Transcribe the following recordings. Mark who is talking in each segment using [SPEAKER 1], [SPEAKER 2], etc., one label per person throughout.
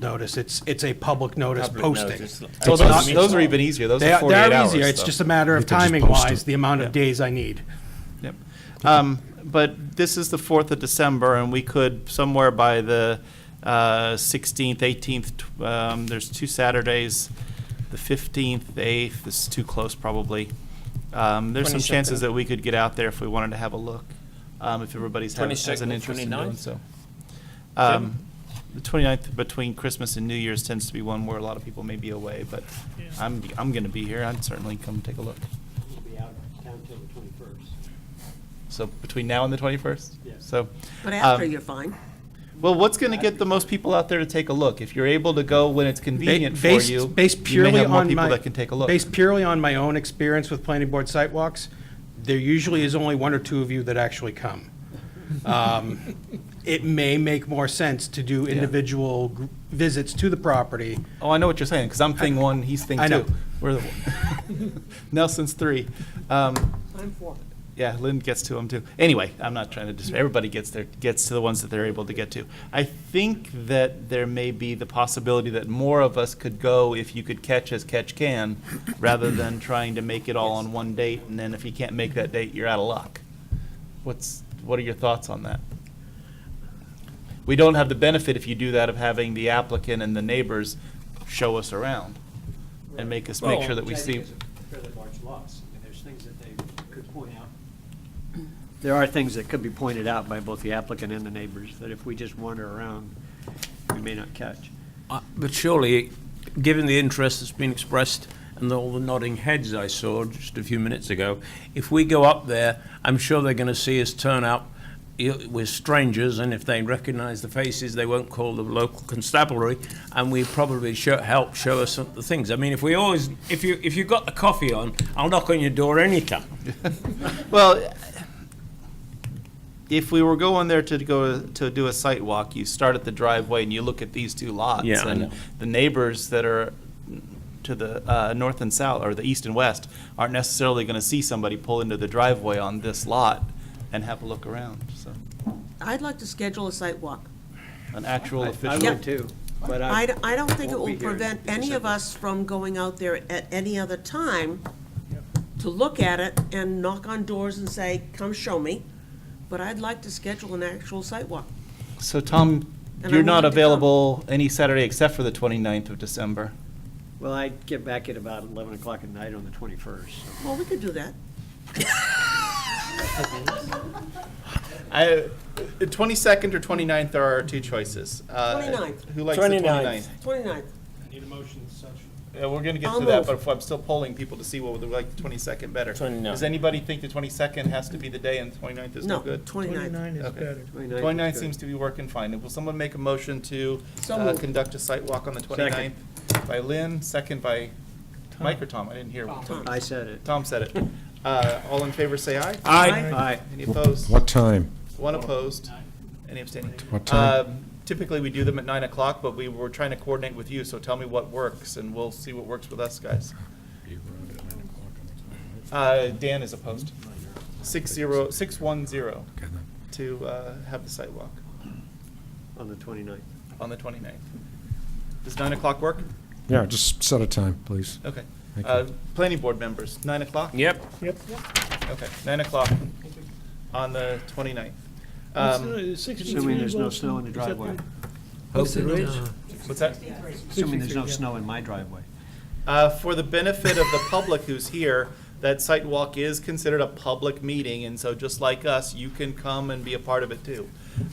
[SPEAKER 1] notice. It's, it's a public notice
[SPEAKER 2] Public notice.
[SPEAKER 1] posting.
[SPEAKER 2] It's not-
[SPEAKER 3] So
[SPEAKER 1] It's
[SPEAKER 3] those,
[SPEAKER 1] not-
[SPEAKER 3] those are even e- easier. Those
[SPEAKER 1] They
[SPEAKER 3] are
[SPEAKER 1] are,
[SPEAKER 3] 48
[SPEAKER 1] they are
[SPEAKER 3] hours.
[SPEAKER 1] easier. It's
[SPEAKER 3] though.
[SPEAKER 1] just a matter of
[SPEAKER 4] could just
[SPEAKER 1] timing
[SPEAKER 4] post
[SPEAKER 1] wise,
[SPEAKER 4] it.
[SPEAKER 1] the amount of days I need.
[SPEAKER 3] Yep. Um, But this is the 4th of December, and we could, somewhere by the uh, 16th, 18th, tw- um, there's two Saturdays, the 15th, 8th, this is too close probably. Um, There's some chances
[SPEAKER 2] 22nd.
[SPEAKER 3] that we could get out there if we wanted to have a look, um, if everybody's ha- has
[SPEAKER 2] 22nd,
[SPEAKER 3] an interest in doing
[SPEAKER 2] 29th?
[SPEAKER 3] so. Um, The 29th, between Christmas and New Year's tends to be one where a lot of people may be away, but I'm, I'm going to be here. I'd certainly come take a look.
[SPEAKER 5] We'll be out of town till the 21st.
[SPEAKER 3] So between now and the 21st?
[SPEAKER 5] Yeah.
[SPEAKER 3] So.
[SPEAKER 6] But after,
[SPEAKER 3] um,
[SPEAKER 6] you're fine.
[SPEAKER 3] Well, what's going to get the most people out there to take a look? If you're able to go when it's convenient
[SPEAKER 1] Ba-
[SPEAKER 3] for
[SPEAKER 1] based-
[SPEAKER 3] you,
[SPEAKER 1] based
[SPEAKER 3] you may
[SPEAKER 1] purely
[SPEAKER 3] have more
[SPEAKER 1] on
[SPEAKER 3] people
[SPEAKER 1] my-
[SPEAKER 3] that can take a look.
[SPEAKER 1] Based purely on my own experience with planning board sidewalks, there usually is only one or two of you that actually come. Um, It may make more sense to do individual gr- visits to the property.
[SPEAKER 3] oh, I know what you're saying because I'm thing one, he's thing
[SPEAKER 1] I know.
[SPEAKER 3] two. We're the Nelson's three. Um,
[SPEAKER 6] I'm for it.
[SPEAKER 3] yeah, Lynn gets to them too. Anyway, I'm not trying to dis Everybody gets their gets to the ones that they're able to get to. I think that there may be the possibility that more of us could go if you could catch as catch can, rather than trying to make it all on one date and then if you can't make that date, you're out of luck. What's what are your thoughts on that? We don't have the benefit if you do that of having the applicant and the neighbors show us around and make us make sure that we
[SPEAKER 5] Which I
[SPEAKER 3] see.
[SPEAKER 5] think is a Fairly large loss. I mean, there's things that they could point out. There are things that could be pointed out by both the applicant and the neighbors that if we just wander around, we may not catch.
[SPEAKER 7] Uh, But surely, given the interest that's been expressed and all the nodding heads I saw just a few minutes ago, if we go up there, I'm sure they're going to see us turn up. y- We're strangers, and if they recognise the faces, they won't call the local constabulary, and we probably show, help show us some, the things. I mean, if we always, if you if you've got the coffee on, I'll knock on your door anytime.
[SPEAKER 3] Well, if we were going there to go to do a site walk, you start at the driveway and you look at these two lots.
[SPEAKER 7] Yeah, I know.
[SPEAKER 3] And the neighbors that are to the uh, north and south, or the east and west, aren't necessarily going to see somebody pull into the driveway on this lot and have a look around, so,
[SPEAKER 6] I'd like to schedule a site walk.
[SPEAKER 3] an actual
[SPEAKER 5] I I
[SPEAKER 3] official.
[SPEAKER 5] would too, but
[SPEAKER 6] I,
[SPEAKER 5] I,
[SPEAKER 6] d- I don't think it
[SPEAKER 5] won't
[SPEAKER 6] will
[SPEAKER 5] be here
[SPEAKER 6] prevent
[SPEAKER 5] in
[SPEAKER 6] any of
[SPEAKER 5] December.
[SPEAKER 6] us from going out there at any other time to look at it and knock on doors and say, come show me. But I'd like to schedule an actual site walk.
[SPEAKER 3] So Tom,
[SPEAKER 6] And I
[SPEAKER 3] you're not
[SPEAKER 6] wanted to come.
[SPEAKER 3] available any Saturday except for the 29th of December.
[SPEAKER 5] well, I get back at about 11 o'clock at night on the 21st. so.
[SPEAKER 6] Well, we could do that.
[SPEAKER 3] I, the 22nd or 29th are our two choices. Uh,
[SPEAKER 6] 29th.
[SPEAKER 3] Who likes the
[SPEAKER 7] 29th.
[SPEAKER 3] 29th?
[SPEAKER 6] 29th.
[SPEAKER 3] Yeah, we're gonna get
[SPEAKER 6] I'll
[SPEAKER 3] to that,
[SPEAKER 6] move.
[SPEAKER 3] but if I'm still polling people to see what would they like the twenty-second better.
[SPEAKER 7] 29.
[SPEAKER 3] Does anybody think the twenty-second has to be the day and the 29th is no
[SPEAKER 6] No,
[SPEAKER 3] good?
[SPEAKER 6] 29th.
[SPEAKER 3] is better.
[SPEAKER 5] 29th is
[SPEAKER 3] Twenty-ninth
[SPEAKER 5] good.
[SPEAKER 3] seems to be working fine. Will someone make a motion to
[SPEAKER 6] So
[SPEAKER 3] uh,
[SPEAKER 6] moved.
[SPEAKER 3] conduct a site walk on the 29th? By Lynn, second by Mike or Tom? I didn't hear.
[SPEAKER 6] Tom.
[SPEAKER 5] I said it.
[SPEAKER 3] Tom said it. Uh, all in favor, say aye.
[SPEAKER 7] I
[SPEAKER 5] Aye.
[SPEAKER 3] Any opposed?
[SPEAKER 4] What time?
[SPEAKER 3] One opposed? Any abstaining?
[SPEAKER 4] What time?
[SPEAKER 3] Um, Typically, we do them at nine o'clock, but we were trying to coordinate with you, so tell me what works, and we'll see what works with us guys. Uh, Dan is opposed. Six zero, six one zero to uh, have the sidewalk
[SPEAKER 5] On the 29th.
[SPEAKER 3] on the 29th. Does nine o'clock work?
[SPEAKER 4] Yeah, just set a time, please.
[SPEAKER 3] Okay.
[SPEAKER 4] Thank you.
[SPEAKER 3] Uh, Planning board members, nine o'clock?
[SPEAKER 7] yep.
[SPEAKER 3] Okay, nine o'clock on the 29th. Um,
[SPEAKER 5] Assuming there's no snow in the driveway.
[SPEAKER 7] Hope there is.
[SPEAKER 3] What's that?
[SPEAKER 5] Assuming there's no snow in my driveway.
[SPEAKER 3] Uh, For the benefit of the public who's here, that site walk is considered a public meeting, and so just like us, you can come and be a part of it too.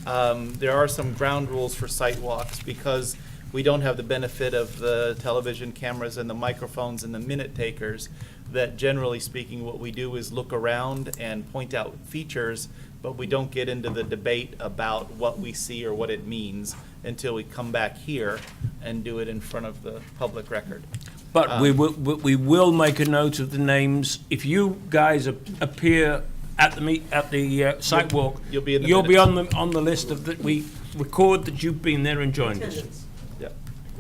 [SPEAKER 3] Um, There are some ground rules for site walks because we don't have the benefit of the television cameras and the microphones and the minute takers, that generally speaking, what we do is look around and point out features, but we don't get into the debate about what we see or what it means until we come back here and do it in front of the public record. Ah.
[SPEAKER 7] But we will, we we will make a note of the names. If you guys ap- appear at the meet, at the uh, site walk,
[SPEAKER 3] you'll be in the
[SPEAKER 7] You'll be
[SPEAKER 3] minutes.
[SPEAKER 7] on the, on the list of that we record that you've been there and joined us.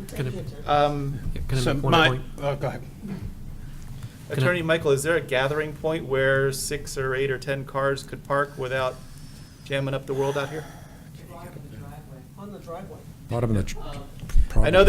[SPEAKER 6] Attendance.
[SPEAKER 3] Yep.
[SPEAKER 5] Uh,
[SPEAKER 3] Um,
[SPEAKER 1] So my, oh, go ahead.
[SPEAKER 3] Attorney Michael, is there a gathering point where six or eight or 10 cars could park without jamming up the world out here?
[SPEAKER 6] On the driveway.
[SPEAKER 4] Bottom of the, tr- I know